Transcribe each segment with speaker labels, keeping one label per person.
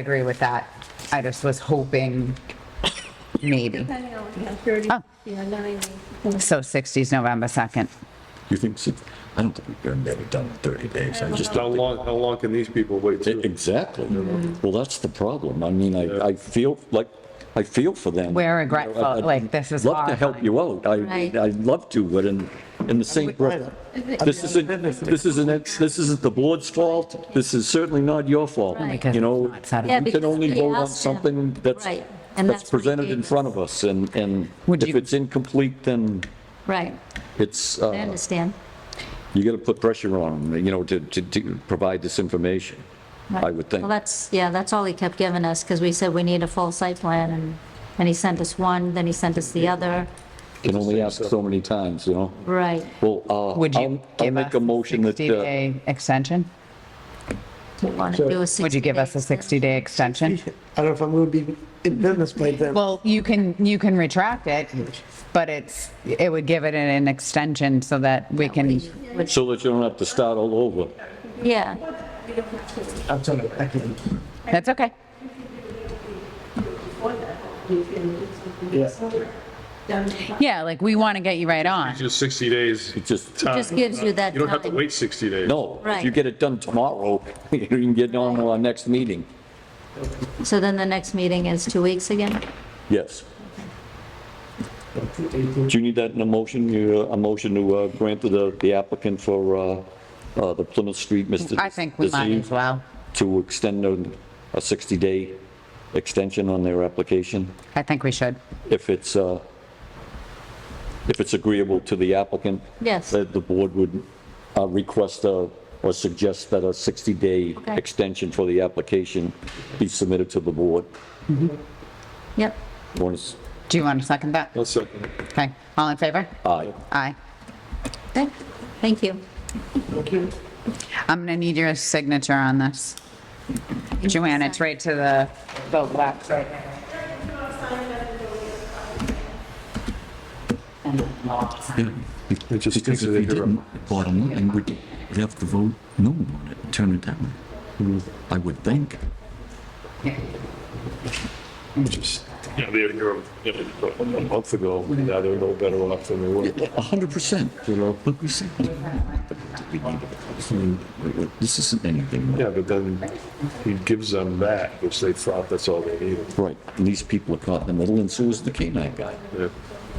Speaker 1: agree with that. I just was hoping maybe.
Speaker 2: Depending on, yeah, 30, yeah, 90.
Speaker 1: So 60s November 2nd.
Speaker 3: You think, six- I don't think we've ever never done it 30 days. I just
Speaker 4: How
Speaker 3: don't
Speaker 4: long, how long can these people wait
Speaker 3: think.
Speaker 4: too?
Speaker 3: E-, Exactly. Well, that's the problem. I mean, I, I feel like, I feel for them.
Speaker 1: We're
Speaker 3: You know, I-
Speaker 1: regretful,
Speaker 3: I'd
Speaker 1: like, this is
Speaker 3: Love to help
Speaker 1: horrifying.
Speaker 3: you out. I,
Speaker 2: Right.
Speaker 3: I'd love to, but in, in the same breath. This isn't, this isn't, this isn't the board's fault. This is certainly not your fault.
Speaker 1: Because
Speaker 3: You know,
Speaker 1: it's not settled.
Speaker 2: Yeah,
Speaker 3: we can
Speaker 2: because
Speaker 3: only
Speaker 2: we
Speaker 3: vote on
Speaker 2: asked them.
Speaker 3: something that's,
Speaker 2: Right, and
Speaker 3: that's
Speaker 2: that's what he
Speaker 3: presented in
Speaker 2: gave
Speaker 3: front of us. And, and
Speaker 1: Would
Speaker 3: if
Speaker 1: you-
Speaker 3: it's incomplete, then
Speaker 2: Right,
Speaker 3: it's,
Speaker 2: I
Speaker 3: uh,
Speaker 2: understand.
Speaker 3: you got to put pressure on them, you know, to, to, to provide this information, I would think.
Speaker 2: Well, that's, yeah, that's all he kept giving us, because we said we need a full site plan, and, and he sent us one, then he sent us the other.
Speaker 3: Can only ask so many times, you know?
Speaker 2: Right,
Speaker 3: Well, uh,
Speaker 1: Would you
Speaker 3: I'll, I'll
Speaker 1: give
Speaker 3: make
Speaker 1: us
Speaker 3: a
Speaker 1: a
Speaker 3: motion that, uh,
Speaker 1: 60-day extension?
Speaker 2: we want to do a 60.
Speaker 1: Would you give us a 60-day extension?
Speaker 5: I don't know if I'm going to be in business by then.
Speaker 1: Well, you can, you can retract it, but it's, it would give it an- an extension so that we can,
Speaker 2: Would-
Speaker 3: so that you don't have to start all over.
Speaker 2: Yeah,
Speaker 5: I'm sorry, I can't.
Speaker 1: that's okay.
Speaker 5: Yeah.
Speaker 1: Yeah, like, we want to get you right on.
Speaker 4: Just 60 days.
Speaker 3: It just,
Speaker 4: time.
Speaker 2: just gives you that
Speaker 4: You don't have to
Speaker 2: time.
Speaker 4: wait 60 days.
Speaker 3: no, if you
Speaker 2: Right.
Speaker 3: get it done tomorrow, you can get on to our next meeting.
Speaker 2: so then the next meeting is two weeks again?
Speaker 3: Yes. Do you need that in a motion, You, uh, a motion to uh, grant to the the applicant for uh, uh, the Plymouth Street, Mr.
Speaker 1: I think we might
Speaker 3: Deceased?
Speaker 1: as well.
Speaker 3: to extend a 60-day extension on their application,
Speaker 1: I think we should.
Speaker 3: if it's, uh, if it's agreeable to the applicant.
Speaker 2: Yes.
Speaker 3: That the board would uh, request a- or suggest that a 60-day
Speaker 2: Okay.
Speaker 3: extension for the application be submitted to the board.
Speaker 2: Yep,
Speaker 3: Once-
Speaker 1: Do you want to second that?
Speaker 4: One second.
Speaker 1: Okay, all in favor?
Speaker 3: Aye.
Speaker 1: Aye.
Speaker 2: okay, thank you.
Speaker 1: I'm gonna need your signature on this. Joanne, it's right to the, the left. right there.
Speaker 4: It just takes
Speaker 6: Because if
Speaker 4: a
Speaker 6: you
Speaker 4: day to run.
Speaker 6: didn't, bottom line, we'd we'd have to vote no on it, turn it down. I would think.
Speaker 4: Just, you know, they were here a a month ago. Now they're no better off than they were.
Speaker 6: A hundred percent, you know, but we said. This isn't anything.
Speaker 4: Yeah, but then he gives them that, which they thought that's all they needed.
Speaker 6: Right, and these people are caught in the middle, and so is the canine guy,
Speaker 4: Yeah.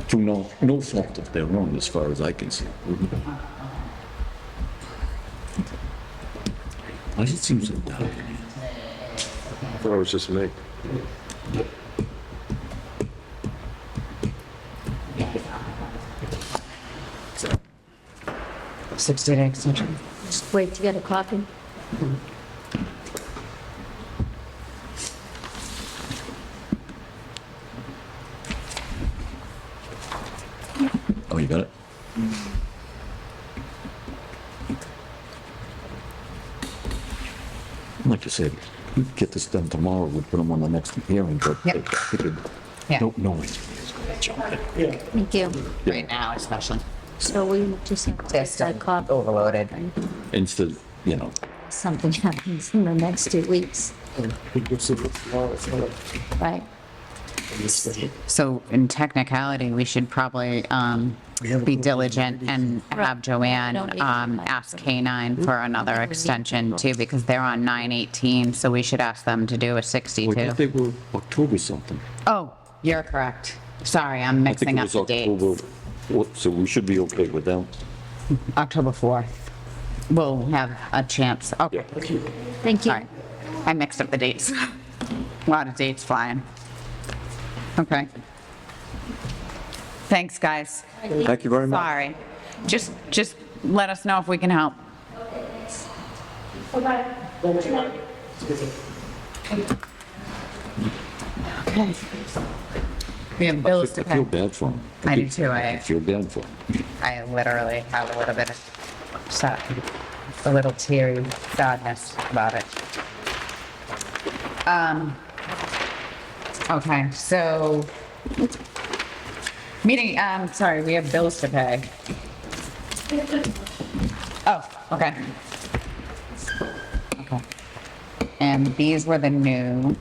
Speaker 6: through no, no fault of their own, as far as I can see. Why does it seem so dark in here?
Speaker 4: I thought it was just me.
Speaker 1: Sixty day extension.
Speaker 2: Just wait to get a copy.
Speaker 6: Oh, you got it? Like I said, we could get this done tomorrow, we'd put them on the next hearing, but
Speaker 1: Yep.
Speaker 6: I figured,
Speaker 1: Yeah.
Speaker 6: don't know engineers gonna jump in.
Speaker 2: Thank you.
Speaker 1: Right now especially.
Speaker 2: So we just have to get
Speaker 1: System
Speaker 2: that copy.
Speaker 1: overloaded.
Speaker 6: Instead, you know,
Speaker 2: Something happens in the next two weeks,
Speaker 5: Oh,
Speaker 2: right?
Speaker 1: So in technicality, we should probably, um, be diligent and have Joanne,
Speaker 2: Don't need
Speaker 1: um,
Speaker 2: to-
Speaker 1: ask K-9 for another extension too, because they're on nine eighteen, so we should ask them to do a
Speaker 6: we
Speaker 1: sixty-two.
Speaker 6: thought they were October something.
Speaker 1: Oh, you're correct. Sorry, I'm
Speaker 3: I think
Speaker 1: mixing
Speaker 3: it
Speaker 1: up
Speaker 3: was
Speaker 1: the dates.
Speaker 3: October, what- so we should be okay with them.
Speaker 1: October 4th. We'll have a chance. Okay,
Speaker 2: Thank you.
Speaker 1: sorry. I mixed up the dates. A Lot of dates flying. Okay. Thanks, guys.
Speaker 3: Thank you very much.
Speaker 1: Sorry. Just, just let us know if we can help. Okay. We have
Speaker 3: I
Speaker 1: bills to
Speaker 3: feel
Speaker 1: pay.
Speaker 3: bad for them.
Speaker 1: I do too, I-
Speaker 3: I feel bad for them.
Speaker 1: I literally have a little bit of, so- a little teary sadness about it. Um, okay, so, meeting, um, sorry, we have bills to pay. Oh, okay. Okay. plan. These were the new.